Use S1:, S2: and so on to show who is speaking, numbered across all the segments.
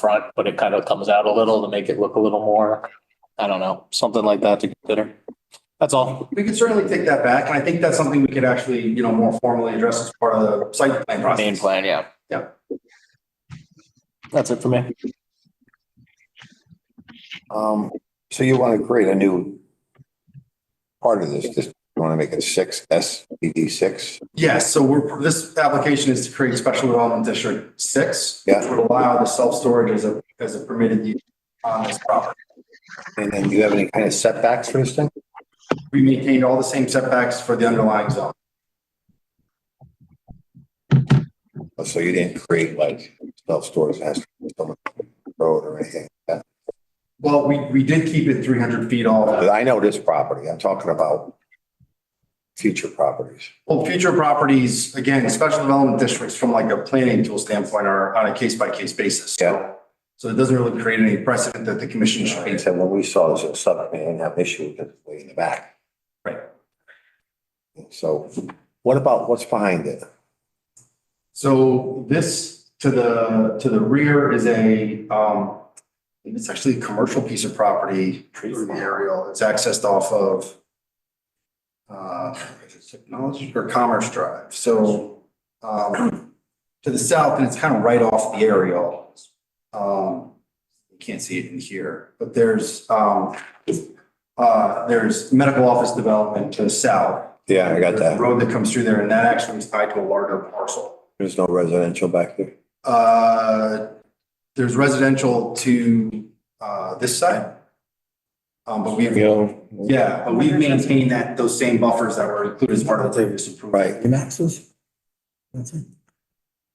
S1: front, but it kind of comes out a little to make it look a little more, I don't know, something like that to consider. That's all.
S2: We can certainly take that back, and I think that's something we could actually, you know, more formally address as part of the site plan
S1: Main
S2: process.
S1: plan, yeah.
S2: Yeah.
S1: That's it for me.
S3: Um, so you want to create a new part of this, just, you want to make it six, S E D six?
S2: Yes, so we're, this application is to create Special Development District Six.
S3: Yeah.
S2: which Would allow the self-storage as a, as a permitted use on this property.
S3: And then do you have any kind of setbacks for this thing?
S2: We maintained all the same setbacks for the underlying zone.
S3: Oh, So you didn't create like self-storage has to be on the road or anything? like that?
S2: Well, we, we did keep it three hundred feet
S3: But
S2: off.
S3: I know this property, I'm talking about future properties.
S2: Well, future properties, again, Special Development Districts from like a planning tool standpoint are on a case-by-case basis. So-
S3: Yeah.
S2: So it doesn't really create any precedent that the commission should be.
S3: He said, when we saw this, it was something, we didn't have an issue with it way in the back.
S2: Right.
S3: So what about what's behind it?
S2: So this to the, to the rear is a, um, I think it's actually a commercial piece of property. through the Aerial, it's accessed off of uh, is it technology or Commerce Drive, so, um, to the south, and it's kind of right off the aerial. Um, you can't see it in here, but there's, um, uh, there's medical office development to the south.
S3: Yeah, I got
S2: There's a
S3: that.
S2: Road that comes through there, and that actually is tied to a larger parcel.
S3: There's no residential back there.
S2: Uh, there's residential to, uh, this side. Um, but we've, yeah, but we've maintained that, those same buffers that were included as part of the previous approval.
S3: Right.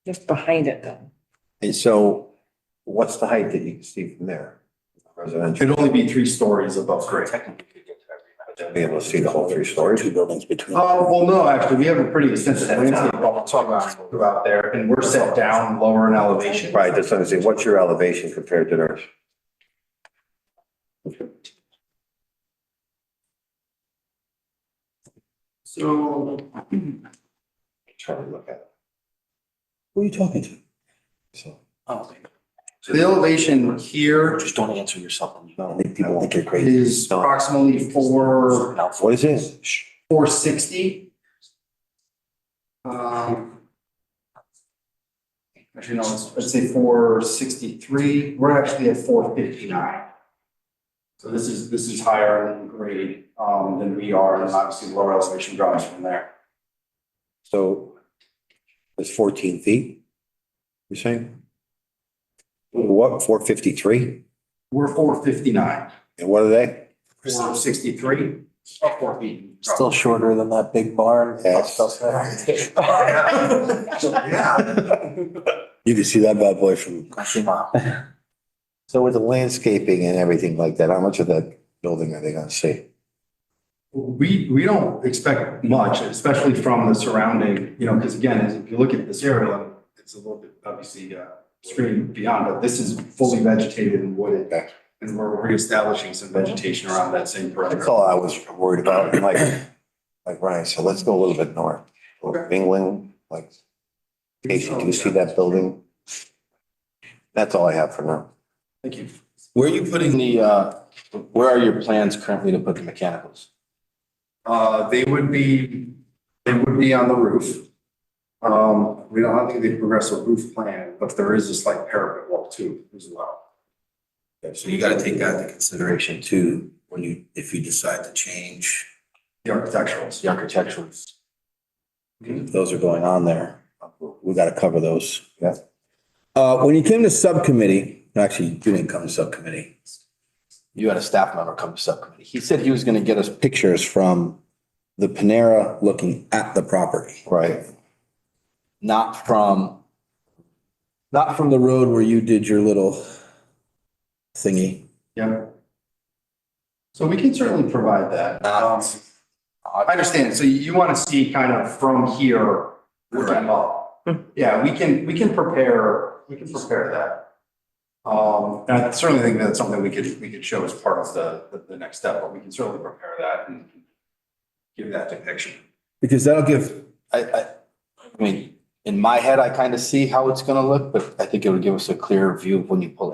S4: Just behind it though.
S3: And so what's the height that you can see from there? Residential,
S2: It'd only be three stories above grade.
S3: be able to see the whole three stories? Oh,
S2: Uh, well, no, actually, we have a pretty extensive landscape buffer talk about there, and we're set down lower in elevation.
S3: Right, that's what I'm saying. What's your elevation compared to theirs?
S2: So,
S3: Trying to look at it. Who
S2: so the elevation here
S5: Just don't answer yourself.
S3: are you talking to? So, people think you're crazy.
S2: is approximately four,
S3: What is it? Shh.
S2: four sixty. Um. Actually, no, let's, let's say four sixty-three, we're actually at four fifty-nine. So this is, this is higher in grade, um, than we are, and obviously lower elevation drives from there.
S3: So it's fourteen feet, you're saying? What, four fifty-three?
S2: We're four fifty-nine,
S3: And what are they?
S2: four sixty-three, or four feet.
S5: Still shorter than that big barn.
S3: Yes.
S2: Yeah.
S3: You can see that bad boy from
S5: That's
S3: So with the landscaping and everything like that, how much of that building are they gonna see?
S2: We, we don't expect much, especially from the surrounding, you know, because again, as if you look at this area, it's a little bit obviously uh, screened beyond, but this is fully vegetated and wooded.
S3: Okay.
S2: And we're reestablishing some vegetation around that same
S3: That's
S2: perimeter.
S3: all I was worried about, and like, like Ryan said, let's go a little bit north.
S2: Okay.
S3: England, like, Casey, do you see that building? That's all I have for now.
S2: Thank you.
S5: Where are you putting the, uh, where are your plans currently to put the mechanicals?
S2: Uh, they would be, they would be on the roof. Um, we don't, I don't think they progress a roof plan, but there is this like parapet wall too as well.
S6: So you gotta take that into consideration too, when you, if you decide to change,
S2: The architecturals.
S5: The architecturals.
S6: those are going on there. We gotta cover those.
S3: Yeah.
S6: Uh, when you came to subcommittee, actually, you didn't come to subcommittee,
S5: You had a staff member come to subcommittee. He said he was gonna get us
S6: pictures from the Panera looking at the property.
S3: Right.
S5: not from,
S6: Not from the road where you did your little thingy.
S2: Yeah. So we can certainly provide that. Um,
S5: Not-
S2: I understand. So you want to see kind of from here where I'm up. Yeah, we can, we can prepare, we can prepare that. Um, and I certainly think that's something we could, we could show as part of the, the, the next step, but we can certainly prepare that and give that depiction.
S6: Because that'll give,
S5: I, I, I mean, in my head, I kind of see how it's gonna look, but I think it would give us a clearer view of when you pull